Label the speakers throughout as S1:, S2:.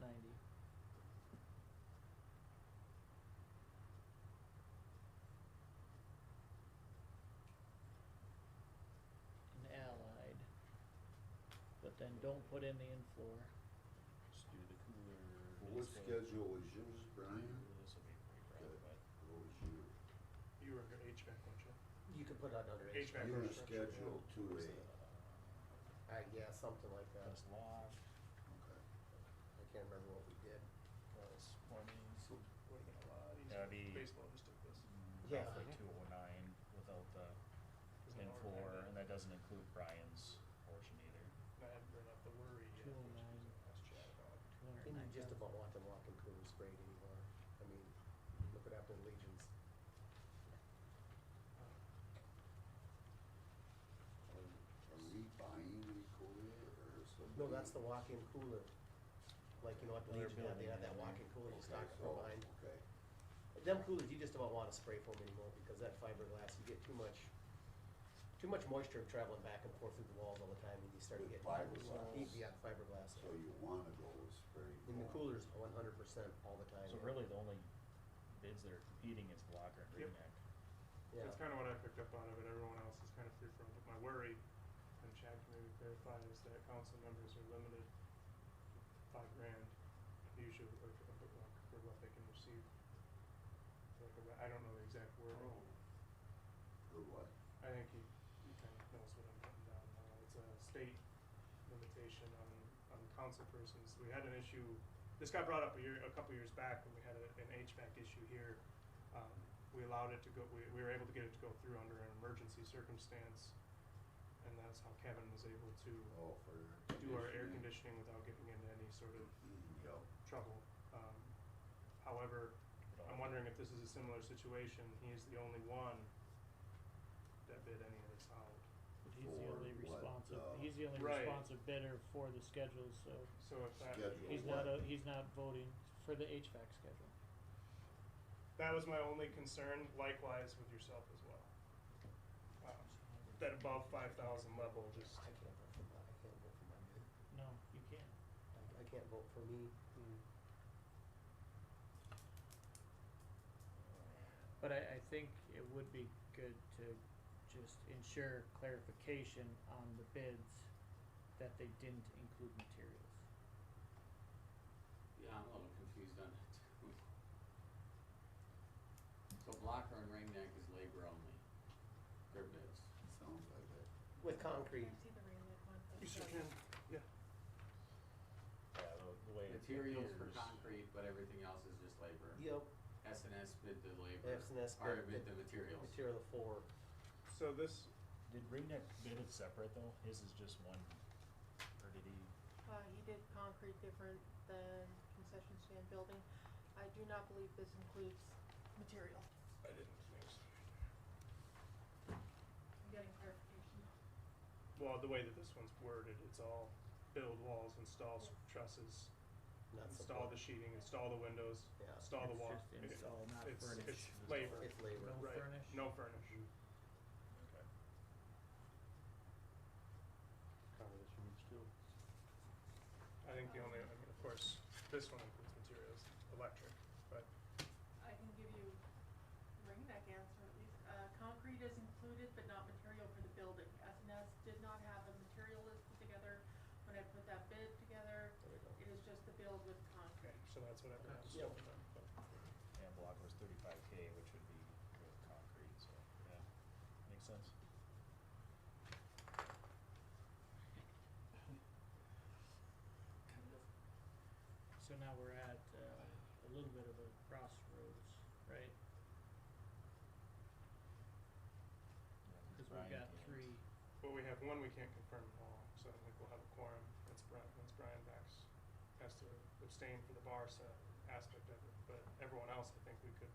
S1: ninety. And allied, but then don't put in the in-floor.
S2: Just do the cooler.
S3: Well, What
S2: baseball.
S3: schedule was yours, Brian?
S2: This will be pretty
S3: Okay.
S2: rough, but
S3: What was yours?
S4: You were under HVAC, weren't you?
S5: You could put out another
S4: HVAC.
S5: HVAC.
S3: You were
S4: infrastructure.
S3: scheduled to
S2: it's,
S3: a,
S2: uh,
S5: Uh, yeah, something like that.
S2: Plus lock,
S3: okay.
S5: I can't remember what we did.
S2: plus plumbing.
S4: Would have been a lot easier.
S2: That'd be-
S4: Uh, Baseball just took this.
S5: Yeah.
S2: Roughly two oh nine without the
S4: Isn't it
S2: in-floor,
S4: hard?
S2: and that doesn't include Brian's portion either.
S4: And I hadn't brought up the worry yet, which
S1: 209.
S4: was the last chat about.
S5: And you just about want them walking cooler sprayed anymore. I mean, look what happened to Legion's.
S3: Are- Are we buying the cooler or something?
S5: No, that's the walk-in cooler. Like, you know, what the
S2: Another
S5: Legion had, they had that
S2: building.
S5: walk-in cooler, you stock
S3: Okay,
S5: it from
S3: so,
S5: behind.
S3: okay.
S5: Them coolers, you just don't want to spray foam anymore because that fiberglass, you get too much, too much moisture traveling back and forth through the walls all the time and you start to
S3: With
S5: get.
S3: fiberglass.
S5: Yeah, fiberglass.
S3: So you wanna go with spray?
S5: And the
S3: foam.
S5: cooler's one hundred percent all the time.
S2: So really, the only bids that are competing is Blocker and
S4: Yep.
S2: Reenact.
S5: Yeah.
S4: That's kind of what I picked up out of it, everyone else is kind of free from, but my worry, and Chad can maybe clarify, is that council members are limited to five grand usually, or, or- for what they can receive. Like, I don't know the exact word.
S3: Or what?
S4: I think he, he kind of knows what I'm putting down now. It's a state limitation on, on council persons. We had an issue, this got brought up a year, a couple years back when we had a- an HVAC issue here. Um, We allowed it to go, we, we were able to get it to go through under an emergency circumstance. And that's how Kevin was able to
S3: Oh, for.
S4: do our air conditioning without getting into any sort of
S3: Yep.
S4: trouble. Um, However, I'm wondering if this is a similar situation. He is the only one that bid any of this out.
S1: But he's the only
S3: For what, uh,
S1: responsive, he's the only
S4: Right.
S1: responsive bidder for the schedules, so
S4: So if that,
S3: Schedule.
S1: he's not, a- he's not voting for the HVAC schedule.
S4: that was my only concern, likewise with yourself as well. Um, That above five thousand level, just,
S5: I can't vote for my, I can't vote for my bid.
S1: No, you can't.
S5: I- I can't vote for me.
S1: But I, I think it would be good to just ensure clarification on the bids that they didn't include materials.
S6: Yeah, I'm a little confused on that too. So Blocker and Ring Neck is labor only, their bids.
S3: Sounds like it.
S5: With concrete,
S7: Can I see the ring that one?
S4: you sure can, yeah.
S2: Yeah, the- the way. it
S6: Materials for
S2: appears-
S6: concrete, but everything else is just labor.
S5: yep,
S6: S and S bid the labor.
S5: S&S bid
S6: Or bid
S5: the
S6: the materials.
S5: material four.
S4: So this,
S2: Did Reenact bid it separate though? His is just one, or did he?
S7: Uh, he did concrete different than concession stand building. I do not believe this includes material.
S4: I didn't think so.
S7: I'm getting clarification.
S4: Well, the way that this one's worded, it's all build walls, install s- trusses,
S5: not
S4: install the
S5: support.
S4: sheeting, install the windows,
S5: Yeah.
S4: install the
S1: It's
S4: wall.
S1: just install,
S4: It-
S1: not
S4: it's-
S1: furnish.
S4: It's labor.
S5: It's labor.
S1: No
S4: Right.
S1: furnish?
S4: No furnish.
S5: Mm.
S4: Okay. I think the only, I mean, of course, this one includes materials, electric, but
S7: I can give you ring neck answer at least. Uh, concrete is included, but not material for the building. S and S did not have a material list put together. When I put that bid together,
S5: There we go.
S7: it is just the build with concrete.
S4: Okay, so that's what I think. was
S5: Yep.
S4: going on.
S2: And block was thirty-five K, which would be with concrete, so, yeah, makes sense.
S1: So now we're at, uh, a little bit of a crossroads, right? Cause we've
S2: Brian
S1: got
S2: and-
S1: three,
S4: Well, we have one we can't confirm at all, so I think we'll have a quorum once Brian, once Brian backs, has to abstain for the bar set aspect of it, but everyone else, I think we could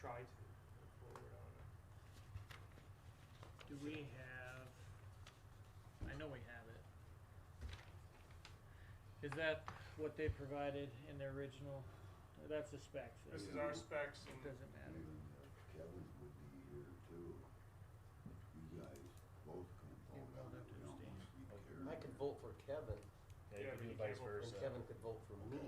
S4: try to move forward on it.
S1: do we have, I know we have it. Is that what they provided in their original, that's the specs,
S4: This
S1: it
S4: is our specs and
S1: doesn't matter.
S3: Even if Kevin would be here too. You guys both can
S1: You're
S3: vote
S1: both
S3: on it. We
S1: abstaining.
S3: don't need to be
S5: I
S3: carried.
S5: could vote for Kevin
S2: Yeah, you
S4: Yeah,
S2: could
S4: but
S2: do
S4: you
S2: vice
S4: can't vote for-
S5: and
S2: versa.
S5: Kevin could vote for me.